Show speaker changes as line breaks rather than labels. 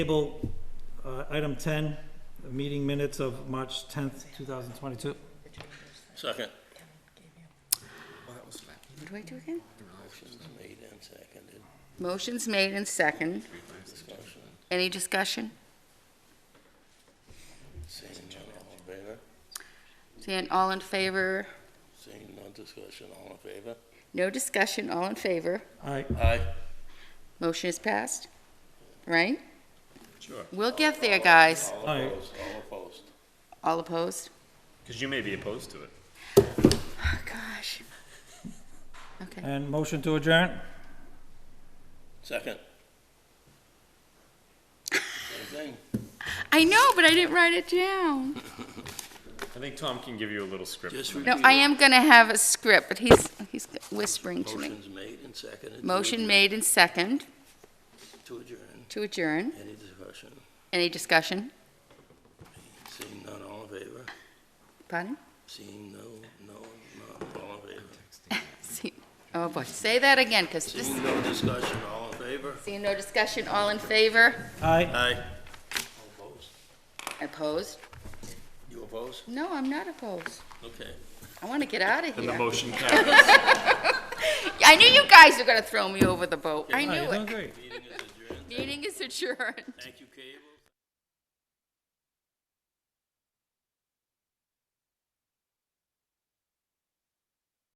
Table, uh, item 10, meeting minutes of March 10th, 2022.
Second.
What do I do again?
Motion's made and seconded.
Motion's made and second. Any discussion?
Seeing none, all in favor?
Seeing all in favor,
Seeing none, discussion, all in favor?
no discussion, all in favor.
Aye.
Aye.
Motion is passed, right?
Sure.
We'll get there, guys.
All
Aye.
opposed, all opposed.
All opposed?
Because you may be opposed to it.
Oh, gosh. Okay.
And motion to adjourn?
Second. Same
I know, but I didn't write it down.
I think Tom can give you a little script.
thing. Just
tonight.
No,
repeat
I
it.
am going to have a script, but he's, he's whispering to me.
Motion's made and seconded. to
Motion
adjourn-
made and second
To adjourn.
to adjourn.
Any discussion?
Any discussion?
Seeing none, all in favor?
Pardon?
Seeing no, no, no, all in favor?
See- Oh, boy. Say that again, because this,
Seeing no discussion, all in favor?
seeing no discussion, all in favor?
Aye.
Aye. All Opposed?
Opposed?
You opposed?
No, I'm not opposed.
Okay.
I want to get out of
And the
here.
motion carries.
I knew you guys were going to throw me over the boat. I
Aye,
knew
you're doing
it.
great.
Meeting is adjourned.
Meeting is adjourned.
Thank you,